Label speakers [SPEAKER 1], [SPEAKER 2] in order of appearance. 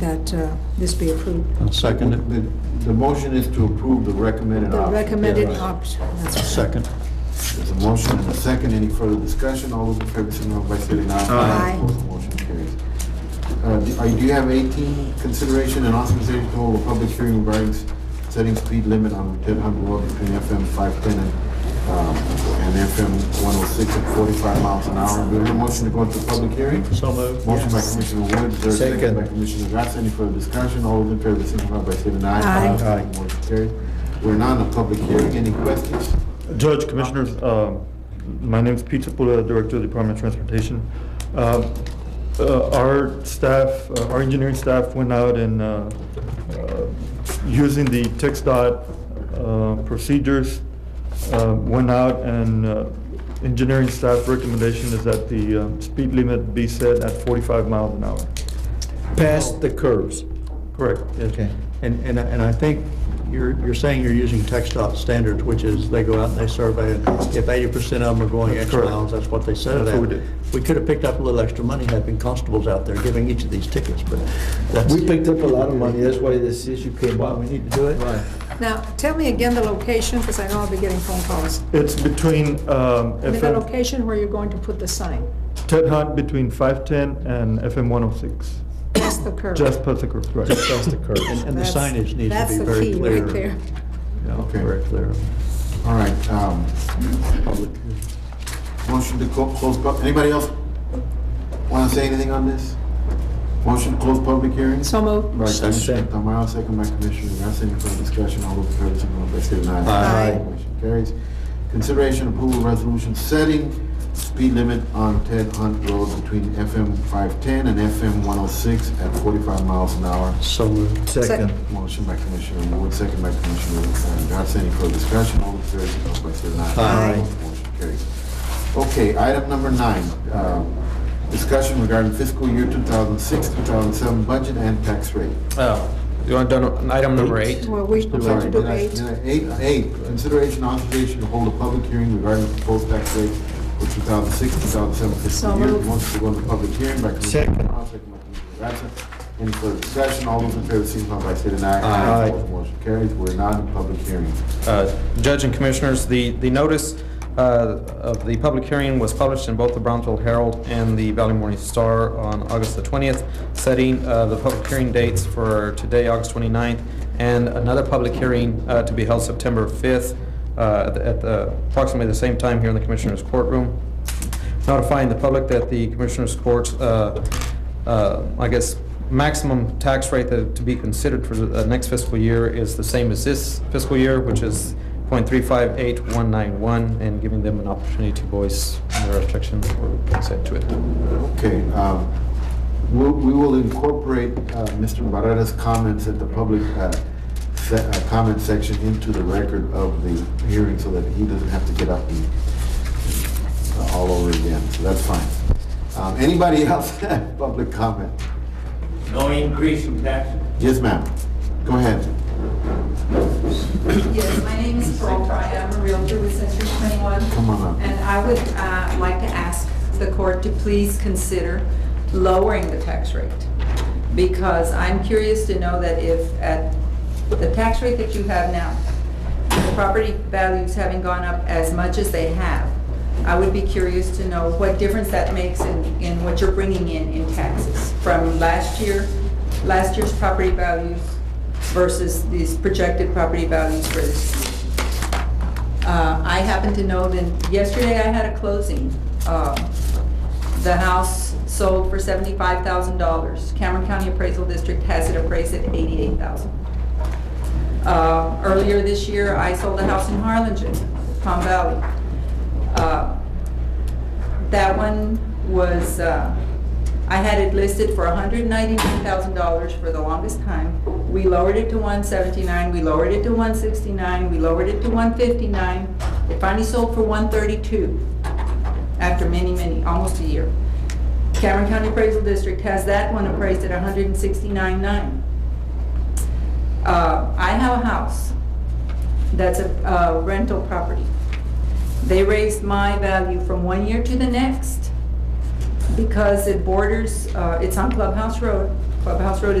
[SPEAKER 1] that uh, this be approved.
[SPEAKER 2] I'll second it.
[SPEAKER 3] The, the motion is to approve the recommended
[SPEAKER 1] The
[SPEAKER 3] option.
[SPEAKER 1] recommended
[SPEAKER 2] Yeah.
[SPEAKER 1] option, that's right.
[SPEAKER 2] Second.
[SPEAKER 3] There's a motion and a second. Any further discussion? All those in favor, signify by stating aye.
[SPEAKER 1] Aye.
[SPEAKER 3] Opposed, the motion carries. Uh, do- are you- do you have eighteen, consideration and authorization to hold a public hearing regarding s- setting speed limit on Dead Hunt Road between FM five-ten and, um, and FM one-oh-six oh at forty-five miles an hour? Do you have a motion to go into public hearing?
[SPEAKER 2] So moved.
[SPEAKER 3] Motion by Commissioner Wood, is there a second
[SPEAKER 2] Second.
[SPEAKER 3] by Commissioner Gatz? Any further discussion? All those in favor, signify by stating
[SPEAKER 1] Aye.
[SPEAKER 3] aye.
[SPEAKER 2] Aye.
[SPEAKER 3] Motion carries. We're now in a public hearing. Any questions?
[SPEAKER 4] Judge, Commissioners, um, my name is Pete Sepulveda, Director of the Department of Transportation. Um, uh, Our staff, uh, our engineering staff went out and, uh, uh, using the TXDOT uh, procedures, uh, went out and uh, engineering staff recommendation is that the uh, speed limit be set at 45 miles an hour.
[SPEAKER 2] Past the curves.
[SPEAKER 4] Correct, yes.
[SPEAKER 2] Okay. And, and, I- and I think you're, you're saying you're using TechStop standards, which is they go out and they survey, and if eighty percent of them are going X
[SPEAKER 4] Correct.
[SPEAKER 2] miles, that's what they set it
[SPEAKER 4] That's
[SPEAKER 2] at.
[SPEAKER 4] what we did.
[SPEAKER 2] We could have picked up a little extra money having constables out there giving each of these tickets, but that's.
[SPEAKER 5] We picked up a lot of money, that's why this issue came
[SPEAKER 2] Why
[SPEAKER 5] up.
[SPEAKER 2] we need to do it.
[SPEAKER 5] Right.
[SPEAKER 1] Now, tell me again the location, because I know I'll be getting phone calls.
[SPEAKER 4] It's between um,
[SPEAKER 1] And the
[SPEAKER 4] FM,
[SPEAKER 1] location where you're going to put the sign,
[SPEAKER 4] Ted Hunt between 510 and FM 106,
[SPEAKER 1] past the curve.
[SPEAKER 4] just past the curve, right.
[SPEAKER 5] That's the curve.
[SPEAKER 2] And, and the
[SPEAKER 1] That's-
[SPEAKER 2] signage needs to be very
[SPEAKER 1] That's the key
[SPEAKER 2] clear.
[SPEAKER 1] right there.
[SPEAKER 2] Yeah,
[SPEAKER 3] Okay.
[SPEAKER 2] Very clear.
[SPEAKER 3] All right, um, motion to co- close, pub- anybody else want to say anything on this? Motion to close public hearing?
[SPEAKER 1] So moved.
[SPEAKER 3] By Commissioner
[SPEAKER 2] Second.
[SPEAKER 3] Tamayo, second by Commissioner Garcia, any further discussion, all those in favor, signify by stating aye.
[SPEAKER 1] Aye. Aye.
[SPEAKER 3] Motion carries. Consideration approval resolution setting speed limit on Ted Hunt Road between FM five-ten and FM one-oh-six oh at forty-five miles an hour.
[SPEAKER 2] So moved.
[SPEAKER 1] Second.
[SPEAKER 3] Motion by Commissioner Wood, second by Commissioner uh, Garcia, any further discussion, all those in favor, signify by stating aye.
[SPEAKER 2] Aye.
[SPEAKER 3] Motion carries. Okay, item number nine, uh, discussion regarding fiscal year two thousand six, two thousand seven budget and tax rate.
[SPEAKER 5] Oh, you want to do an- item number eight?
[SPEAKER 1] Well, we
[SPEAKER 3] I'm
[SPEAKER 1] we
[SPEAKER 3] sorry,
[SPEAKER 1] have to
[SPEAKER 3] did
[SPEAKER 1] do
[SPEAKER 3] I-
[SPEAKER 1] eight.
[SPEAKER 3] did I- Eight, eight, consideration authorization to hold a public hearing regarding the proposed tax rate for 2006, 2007
[SPEAKER 1] So
[SPEAKER 3] fiscal year.
[SPEAKER 1] moved.
[SPEAKER 3] Motion to go into public hearing by Commissioner
[SPEAKER 2] Second.
[SPEAKER 3] Brown, second by Commissioner Garza. Any further discussion? All those in favor, signify by stating
[SPEAKER 2] Aye.
[SPEAKER 3] aye. Opposed, Motion carries. We're not in public hearing.
[SPEAKER 5] Uh, Judge and Commissioners, the, the notice uh, of the public hearing was published in both the Brownsville Herald and the Valley Morning Star on August the 20th, setting uh, the public hearing dates for today, August 29th, and another public hearing uh, to be held September 5th uh, at the- at the- approximately the same time here in the Commissioners' courtroom. Notifying the public that the Commissioners' courts, uh, uh, I guess, maximum tax rate that- to be considered for the uh, next fiscal year is the same as this fiscal year, which is .358191, and giving them an opportunity to voice their objections or consent to it.
[SPEAKER 3] Okay, um, we'll- we will incorporate uh, Mr. Barrera's comments at the public uh, se- uh, comment section into the record of the hearing so that he doesn't have to get up and uh, all over again, so that's fine. Um, Anybody else have public comment?
[SPEAKER 6] No increase in taxes.
[SPEAKER 3] Yes, ma'am, go ahead.
[SPEAKER 7] Yes, my name is Paul Fry. I'm a realtor with Century 21.
[SPEAKER 3] Come on up.
[SPEAKER 7] And I would uh, like to ask the court to please consider lowering the tax rate. Because I'm curious to know that if, at the tax rate that you have now, the property values having gone up as much as they have, I would be curious to know what difference that makes in, in what you're bringing in, in taxes from last year, last year's property values versus these projected property values for this year. Uh, I happen to know that yesterday I had a closing. Uh, The house sold for seventy-five thousand dollars. Cameron County Appraisal District has it appraised at eighty-eight thousand. Uh, Earlier this year, I sold a house in Harlingen, Palm Valley. Uh, That one was, uh, I had it listed for $199,000 for the longest time. We lowered it to 179, we lowered it to 169, we lowered it to 159. It finally sold for 132 after many, many, almost a year. Cameron County Appraisal District has that one appraised at 169.9. Uh, I have a house that's a uh, rental property. They raised my value from one year to the next because it borders, uh, it's on Clubhouse Road. Clubhouse Road is